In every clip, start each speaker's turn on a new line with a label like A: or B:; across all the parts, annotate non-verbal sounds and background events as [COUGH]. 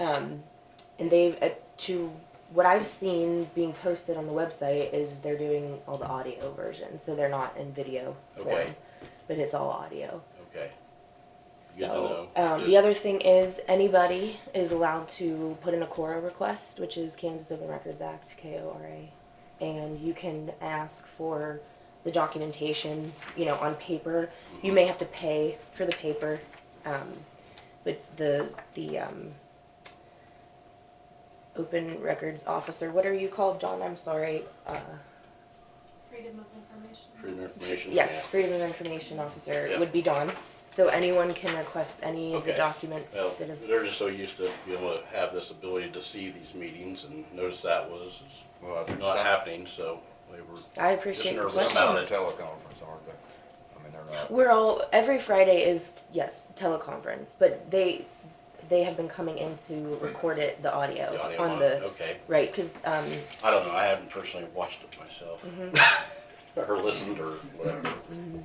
A: Um, and they've, uh, to what I've seen being posted on the website is they're doing all the audio version, so they're not in video
B: Okay.
A: form, but it's all audio.
B: Okay. Good to
A: So,
B: know.
A: um,
B: Just-
A: the other thing is anybody is allowed to put in a CORA request, which is Kansas Open Records Act, KORA. And you can ask for the documentation, you know, on paper.
B: Mm-hmm.
A: You may have to pay for the paper, um, but the, the, um, open records officer, what are you called, John? I'm sorry. Uh,
C: Freedom of information.
B: Freedom of information.
A: yes, Freedom of Information Officer
B: Yeah.
A: would be Dawn. So anyone can request any of the
B: Okay.
A: documents
B: Yeah. Well,
A: that have
B: they're just so used to being able to have this ability to see these meetings and notice that was
D: Well, I think
B: not
D: some-
B: happening, so they were,
A: I appreciate the
B: Listeners
D: Some
B: Question.
D: out
A: question.
D: of teleconference, aren't they? I mean, they're not,
A: We're all every Friday is yes teleconference, but they they have been coming in to record it the audio,
B: the audio
A: Oh, on
B: on,
A: the
B: okay.
A: right because um
B: I don't know, I haven't personally watched it myself.
A: Mm-hmm.
B: [LAUGHS] Or listened or whatever,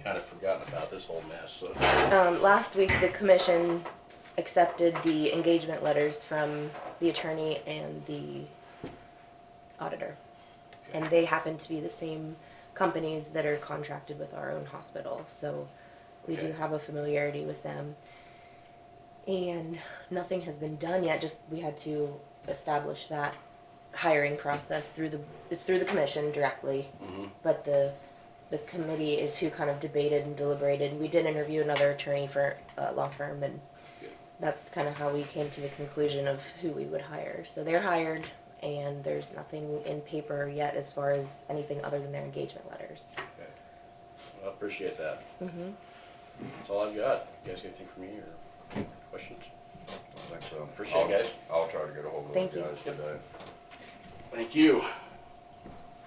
B: kind of forgotten about this whole mess, so, mm-hmm.
A: um, last week the commission accepted the engagement letters from the attorney and the auditor, and they happen to be the same companies that are contracted with our own hospital, so we do
B: Okay.
A: have a familiarity with them. And nothing has been done yet, just we had to establish that hiring process through the, it's through the commission directly.
B: Mhm.
A: But the, the committee is who kind of debated and deliberated. We did interview another attorney for a law firm and
B: Good.
A: that's kind of how we came to the conclusion of who we would hire. So they're hired and there's nothing in paper yet as far as anything other than their engagement letters.
B: okay. Well, I appreciate that.
A: Mm-hmm.
B: That's all I've got. You guys got anything for me or questions?
D: I think so.
B: Appreciate it,
D: I'll-
B: guys.
D: I'll try to get a hold of those
A: Thank you.
D: guys today.
B: Thank you.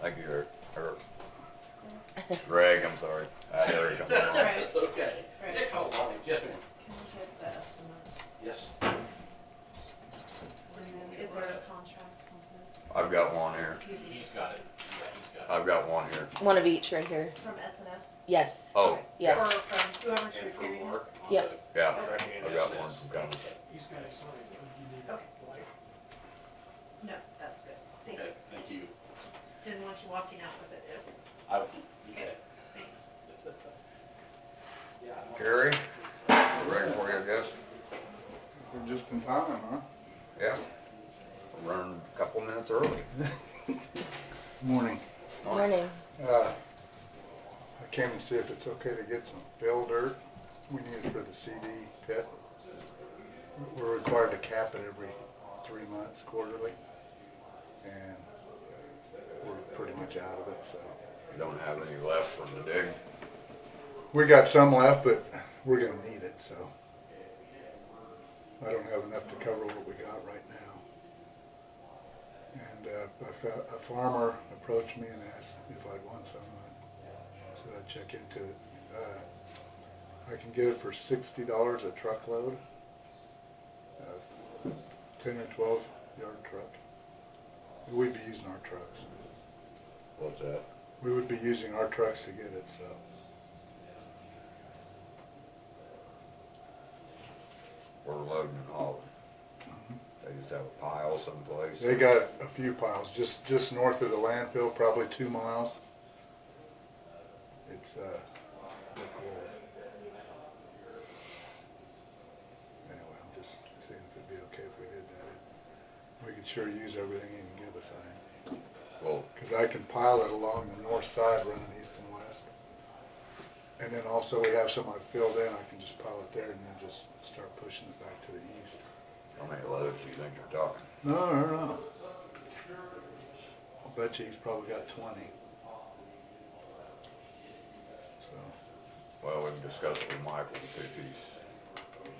D: Thank you, Eric, Eric. Greg, I'm sorry. Uh, Eric, I'm sorry.
B: [LAUGHS]
C: Right.
B: okay.
C: Right.
B: Yeah, come along. Yes, ma'am.
C: Can we get the estimate?
B: Yes.
C: And then is there a contract on this?
D: I've got one here.
B: He's got it. Yeah, he's got
D: I've got one here.
A: One of each right here.
C: From SNS?
A: Yes.
D: Oh,
A: Yes.
C: Or from whoever's
B: it. And for
C: reviewing it?
B: Mark. on
A: Yep.
B: the
D: yeah,
B: contract and
D: I've got
B: business.
D: one from Cummins.
E: He's got a sign, but you need
C: Okay.
E: a light.
C: No, that's good.
B: Okay,
C: Thanks.
B: thank you.
C: Just didn't want you walking out with it.
B: I,
C: Okay. Thanks.
D: Gary, you ready for you, I guess?
F: We're just in time, huh?
D: Yeah. Run a couple minutes early.
F: Morning.
A: Morning.
F: Uh, I came to see if it's okay to get some fill dirt. We need it for the CD pit. We're required to cap it every three months quarterly. And we're pretty much out of it, so.
D: You don't have any left from the dig.
F: We got some left, but we're gonna need it, so. I don't have enough to cover what we got right now. And uh, a fa- a farmer approached me and asked if I'd want some. I said I'd check into it. Uh, I can get it for sixty dollars a truckload. Uh, Ten or twelve yard truck. We'd be using our trucks.
D: What's that?
F: We would be using our trucks to get it, so.
D: We're loading and hauling. They just have a pile someplace.
F: They got a few piles, just, just north of the landfill, probably two miles. It's, uh, Lick Wolf. Anyway, I'm just seeing if it'd be okay if we did that. We could sure use everything you can give us, I,
D: Well,
F: cause I can pile it along the north side running east and west. And then also we have some I filled in, I can just pile it there and then just start pushing it back to the east.
D: how many loads do you think you're talking?
F: No, I don't know. I bet you he's probably got twenty. So,
D: Well, we can discuss it with Michael to see if he's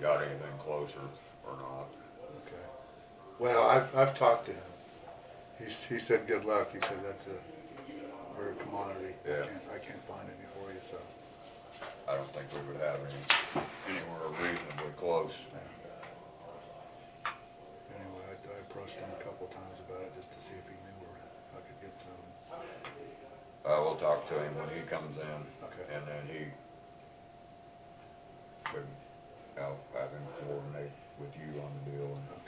D: got anything closer or not.
F: okay. Well, I've, I've talked to him. He's, he said, good luck. He said, that's a rare commodity. I
D: Yeah.
F: can't- I can't find any for you, so.
D: I don't think we would have any, anywhere reasonably close.
F: Anyway, I, I approached him a couple times about it just to see if he knew where I could get some.
D: I will talk to him when he comes in,
F: Okay.
D: and then he could, I'll have him coordinate with you on the deal and